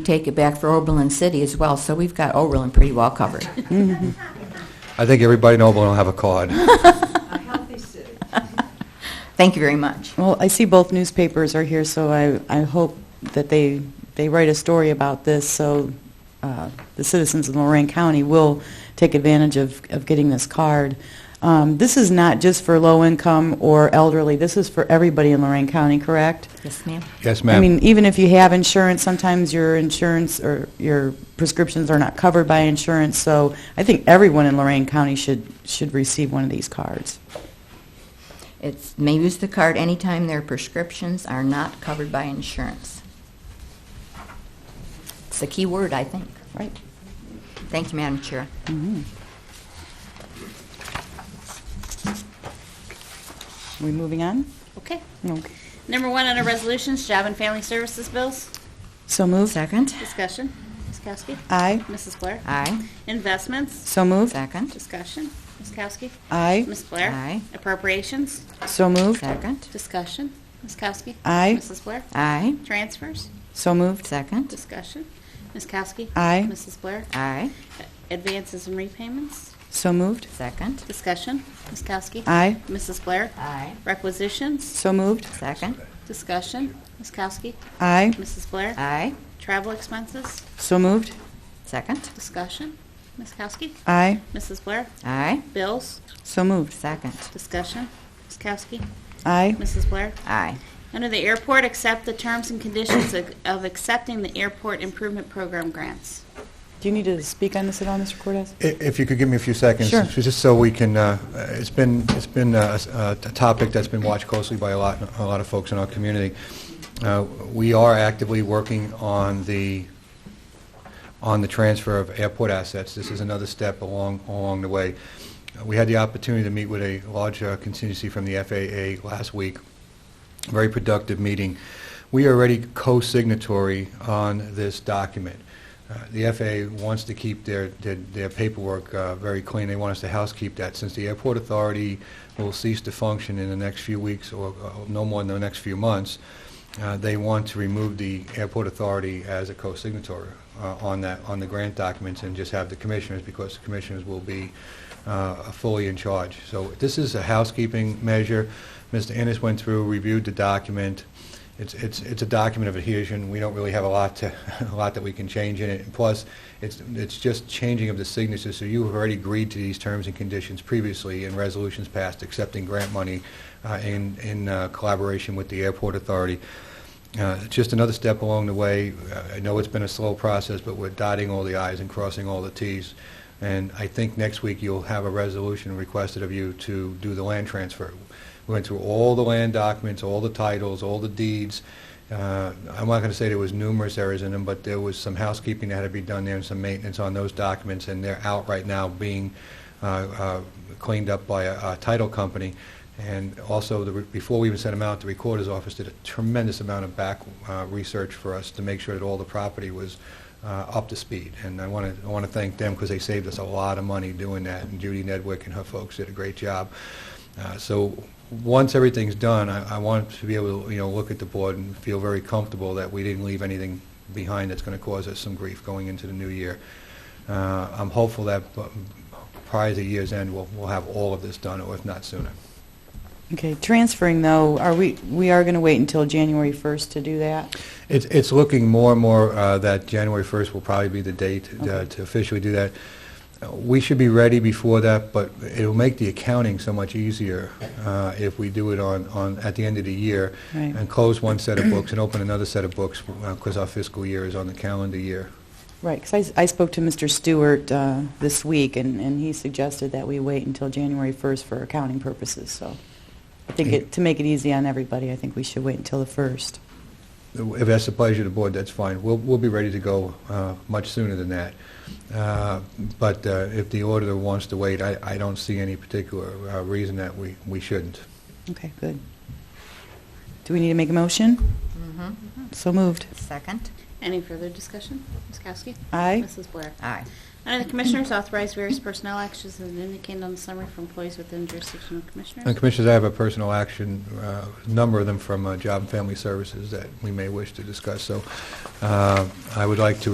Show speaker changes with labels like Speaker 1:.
Speaker 1: take it back for Oberlin City as well, so we've got Oberlin pretty well covered.
Speaker 2: I think everybody in Oberlin will have a card.
Speaker 3: A healthy city.
Speaker 1: Thank you very much.
Speaker 4: Well, I see both newspapers are here, so I, I hope that they, they write a story about this so uh, the citizens of Lorraine County will take advantage of, of getting this card. Um, this is not just for low income or elderly. This is for everybody in Lorraine County, correct?
Speaker 1: Yes, ma'am.
Speaker 2: Yes,
Speaker 4: I mean,
Speaker 2: ma'am.
Speaker 4: even if you have insurance, sometimes your insurance or your prescriptions are not covered by insurance. So I think everyone in Lorraine County should, should receive one of these cards.
Speaker 1: It's, may use the card anytime their prescriptions are not covered by insurance. It's a key word, I think.
Speaker 4: Right.
Speaker 1: Thank you, Madam Chair.
Speaker 4: Are we moving on?
Speaker 5: Okay.
Speaker 4: Okay.
Speaker 5: Number one under resolutions, job and family services bills.
Speaker 4: So moved.
Speaker 1: Second?
Speaker 5: Discussion. Ms. Kowski.
Speaker 4: Aye.
Speaker 5: Mrs. Blair.
Speaker 1: Aye.
Speaker 5: Investments.
Speaker 4: So moved.
Speaker 1: Second?
Speaker 5: Discussion. Ms. Kowski.
Speaker 4: Aye.
Speaker 5: Ms. Blair.
Speaker 1: Aye.
Speaker 5: Appropriations.
Speaker 4: So moved.
Speaker 1: Second?
Speaker 5: Discussion. Ms. Kowski.
Speaker 4: Aye.
Speaker 5: Mrs. Blair.
Speaker 1: Aye.
Speaker 5: Transfers.
Speaker 4: So moved.
Speaker 1: Second?
Speaker 5: Discussion. Ms. Kowski.
Speaker 4: Aye.
Speaker 5: Mrs. Blair.
Speaker 1: Aye.
Speaker 5: Advances and repayments.
Speaker 4: So moved.
Speaker 1: Second?
Speaker 5: Discussion. Ms. Kowski.
Speaker 4: Aye.
Speaker 5: Mrs. Blair.
Speaker 1: Aye.
Speaker 5: Requisitions.
Speaker 4: So moved.
Speaker 1: Second?
Speaker 5: Discussion. Ms. Kowski.
Speaker 4: Aye.
Speaker 5: Mrs. Blair.
Speaker 1: Aye.
Speaker 5: Travel expenses.
Speaker 4: So moved.
Speaker 1: Second?
Speaker 5: Discussion. Ms. Kowski.
Speaker 4: Aye.
Speaker 5: Mrs. Blair.
Speaker 1: Aye.
Speaker 5: Bills,
Speaker 4: So moved.
Speaker 1: Second?
Speaker 5: discussion. Ms. Kowski,
Speaker 4: Aye.
Speaker 5: Mrs. Blair.
Speaker 1: Aye.
Speaker 5: Under the airport, accept the terms and conditions of- of accepting the airport improvement program grants.
Speaker 4: Do you need to speak on this at all, Mr. Cortez?
Speaker 2: I- If you could give me a few seconds.
Speaker 4: Sure.
Speaker 2: Just so we can, uh, it's been, it's been uh, s- uh, a topic that's been watched closely by a lot, a lot of folks in our community. Uh, We are actively working on the, on the transfer of airport assets. This is another step along, along the way. Uh, We had the opportunity to meet with a large uh, contingency from the FAA last week, very productive meeting. We are already co-signatory on this document. Uh, The FAA wants to keep their, their their paperwork uh, very clean. They want us to housekeep that. Since the airport authority will cease to function in the next few weeks, or uh, no more than the next few months, uh, they want to remove the airport authority as a co-signatory uh, on that, on the grant documents, and just have the commissioners, because the commissioners will be uh, fully in charge. So this is a housekeeping measure. Mr. Ennis went through, reviewed the document. It's, it's, it's a document of adhesion. We don't really have a lot to, a lot that we can change in it. And plus, it's, it's just changing of the signatures, so you have already agreed to these terms and conditions previously in resolutions passed accepting grant money uh, in, in uh, collaboration with the airport authority. Uh, It's just another step along the way. Uh, I know it's been a slow process, but we're dotting all the i's and crossing all the t's. And I think next week you'll have a resolution requested of you to do the land transfer. We went through all the land documents, all the titles, all the deeds. Uh, I'm not going to say there was numerous errors in them, but there was some housekeeping that had to be done there and some maintenance on those documents, and they're out right now being uh, uh, cleaned up by a a title company. And also, the re- before we even sent them out, the Recorder's Office did a tremendous amount of back uh, research for us to make sure that all the property was uh, up to speed. And I want to, I want to thank them because they saved us a lot of money doing that. And Judy Nedwick and her folks did a great job. Uh, So, once everything's done, I I want to be able to, you know, look at the board and feel very comfortable that we didn't leave anything behind that's going to cause us some grief going into the new year. Uh, I'm hopeful that uh, prior to the year's end, we'll we'll have all of this done, or if not sooner.
Speaker 4: Okay, transferring though, are we, we are going to wait until January 1st to do that?
Speaker 2: It's, it's looking more and more uh, that January 1st will probably be the date uh,
Speaker 4: Okay.
Speaker 2: to officially do that. Uh, We should be ready before that, but it'll make the accounting so much easier uh, if we do it on, on, at the end of the year.
Speaker 4: Right.
Speaker 2: And close one set of books and open another set of books, because our fiscal year is on the calendar year.
Speaker 4: Right, because I, I spoke to Mr. Stewart uh, this week, and, and he suggested that we wait until January 1st for accounting purposes, so I think it, to make it easy on everybody, I think we should wait until the 1st.
Speaker 2: If that's the pleasure of the board, that's fine. We'll, we'll be ready to go uh, much sooner than that. Uh, But uh, if the auditor wants to wait, I, I don't see any particular uh, reason that we, we shouldn't.
Speaker 4: Okay, good. Do we need to make a motion? So moved.
Speaker 1: Mm-hmm. Second?
Speaker 5: Any further discussion? Ms. Kowski?
Speaker 4: Aye.
Speaker 5: Mrs. Blair?
Speaker 1: Aye.
Speaker 5: Under the Commissioners, authorize various personnel actions as indicated on the summary for employees within jurisdiction of
Speaker 2: And
Speaker 5: Commissioners.
Speaker 2: Commissioners, I have a personal action, uh, a number of them from uh, Job and Family Services that we may wish to discuss, so uh, I would like to